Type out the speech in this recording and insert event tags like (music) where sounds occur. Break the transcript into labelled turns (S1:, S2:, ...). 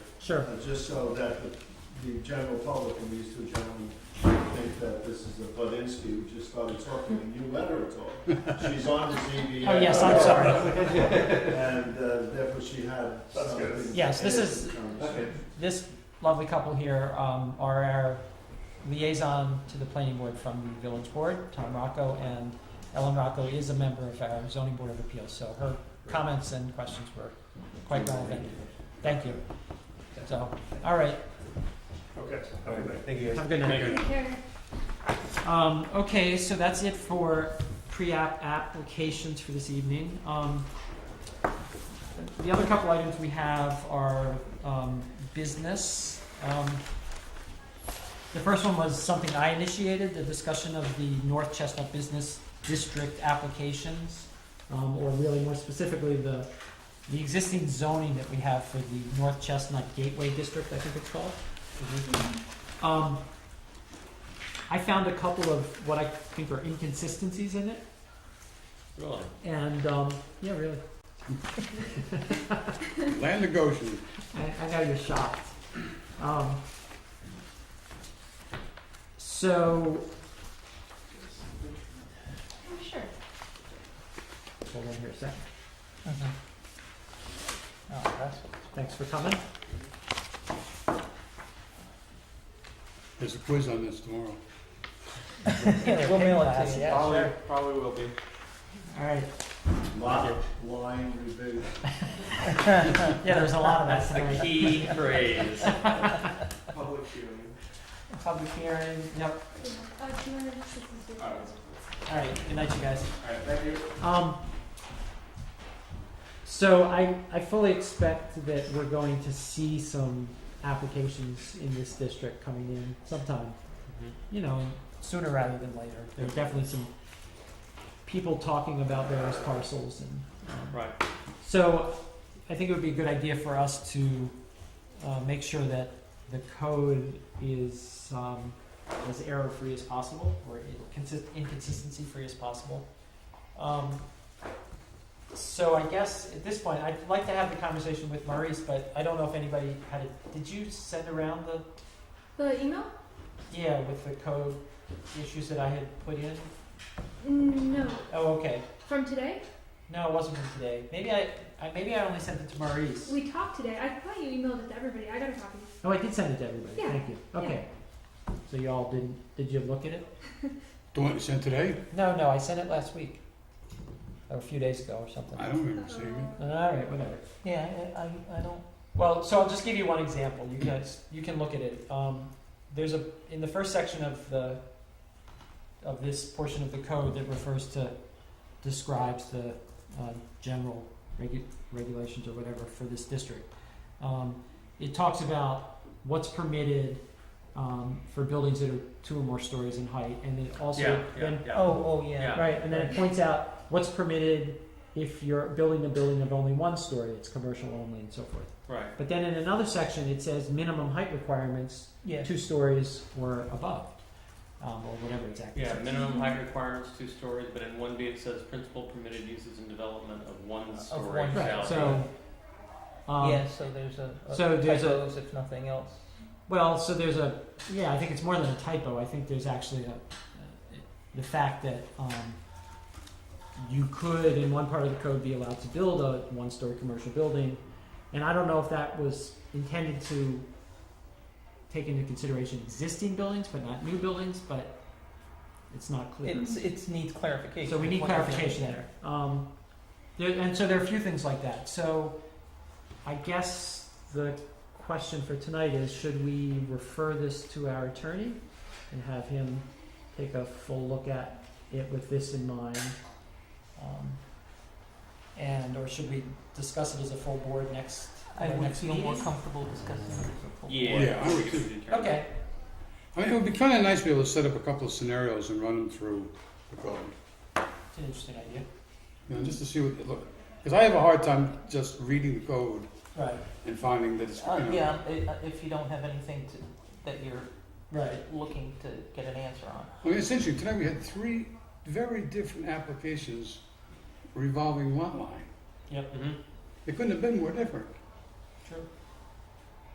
S1: Sure.
S2: uh, just so that the- the general public and these two gentlemen think that this is a Budinsky who just started talking, and you let her talk. She's on the ZBA.
S1: Oh, yes, I'm sorry.
S2: And uh, therefore she had
S3: That's
S2: something.
S3: good.
S2: to
S1: Yes, this
S2: add
S1: is-
S2: to the conversation.
S1: This lovely couple here um, are our liaison to the planning board from the village board, Tom Rocco, and Ellen Rocco is a member of our zoning board of appeals, so her comments and questions were quite relevant. Thank you. So, all right,
S3: Okay, have a good night.
S4: Thank you
S1: have a good night. Um, okay, so that's it for pre-app applications for this evening. Um, the other couple items we have are, um, business. Um, the first one was something I initiated, the discussion of the North Chestnut Business District applications. Um, or really more specifically, the, the existing zoning that we have for the North Chestnut Gateway District, I think it's called. Um, I found a couple of what I think are inconsistencies in it,
S4: Really?
S1: and um, yeah, really,
S5: Land of Goshen.
S1: I, I know you're shocked. Um, so
S6: Sure.
S1: hold on here a 2nd Mm-hmm. Oh, Thanks for (laughs) coming.
S5: There's a quiz on this tomorrow.
S1: we'll mail it to you.
S4: Probably, probably will be.
S1: All right.
S2: Lot line review.
S1: Yeah, there's a lot of that
S4: That's the
S1: tonight.
S4: key
S1: (laughs)
S4: phrase.
S3: Public hearing.
S1: Public hearing. Yep.
S6: Uh, do you want to just do this?
S3: All right.
S1: All right. Good night, you guys.
S3: All right, thank you.
S1: Um, so I, I fully expect that we're going to see some applications in this district coming in sometime,
S4: Mm-hmm.
S1: you know, sooner rather than later. There are definitely some people talking about various parcels and. um,
S4: Right.
S1: So I think it would be a good idea for us to, uh, make sure that the code is, um, as error-free as possible or inconsist- inconsistency-free as possible. Um, so I guess at this point, I'd like to have the conversation with Maurice, but I don't know if anybody had it. Did you send around the,
S6: The email?
S1: yeah, with the code issues that I had put in?
S6: No.
S1: Oh, okay.
S6: From today?
S1: No, it wasn't from today. Maybe I, I maybe I only sent it to Maurice.
S6: We talked today. I thought you emailed it to everybody. I got a copy.
S1: Oh, I did send it to everybody.
S6: Yeah,
S1: Thank you. Okay. So y'all didn't, did you look at it?
S5: The one you sent today?
S1: No, no, I sent it last week. Or a few days ago or something.
S5: I don't remember seeing it.
S1: All right, whatever. Yeah, I, I, I don't. Well, so I'll just give you one example. You guys, you can look at it. Um, there's a, in the first section of the, of this portion of the code that refers to, describes the, uh, general regu- regulations or whatever for this district. Um, it talks about what's permitted, um, for buildings that are two or more stories in height, and it also
S4: Yeah, yeah,
S1: then.
S4: yeah.
S1: Oh, oh,
S4: Yeah.
S1: Right, and then it points out what's permitted if you're building a building of only one story, it's commercial only and so forth.
S4: Right.
S1: But then in another section, it says minimum height requirements,
S4: Yeah.
S1: two stories or above, um, or whatever exactly.
S4: Yeah, minimum height requirements, two stories, but in one B it says principal permitted uses and development of one story
S1: Right,
S4: shall be.
S1: so. Um,
S7: Yeah, so there's a, a
S1: So there's a-
S7: typos if nothing else.
S1: Well, so there's a, yeah, I think it's more than a typo. I think there's actually a, the fact that um, you could, in one part of the code, be allowed to build a one story commercial building. And I don't know if that was intended to take into consideration existing buildings, but not new buildings, but it's not clear.
S7: It's it's needs clarification.
S1: So we need
S7: What happened
S1: clarification there. Um, there, and so there are a few things like that. So I guess the question for tonight is, should we refer this to our attorney and have him take a full look at it with this in mind? Um, and, or should we discuss it as a full board next,
S7: I
S1: our
S7: would
S1: next
S7: feel more
S1: meeting?
S7: comfortable discussing it as a full.
S4: Yeah.
S5: Yeah, I would too.
S4: we should determine.
S1: Okay,
S5: I mean, it would be kind of nice to be able to set up a couple of scenarios and run them through the code.
S1: it's an interesting idea.
S5: You know, just to see what it look. Because I have a hard time just reading the code
S1: Right,
S5: and finding that it's, you
S7: Uh,
S5: know.
S7: yeah, i- if you don't have anything to, that you're
S1: right.
S7: looking to get an answer on.
S5: I mean, essentially, tonight we had three very different applications revolving lot line.
S4: Mhm.
S5: It couldn't have been more different.
S1: True.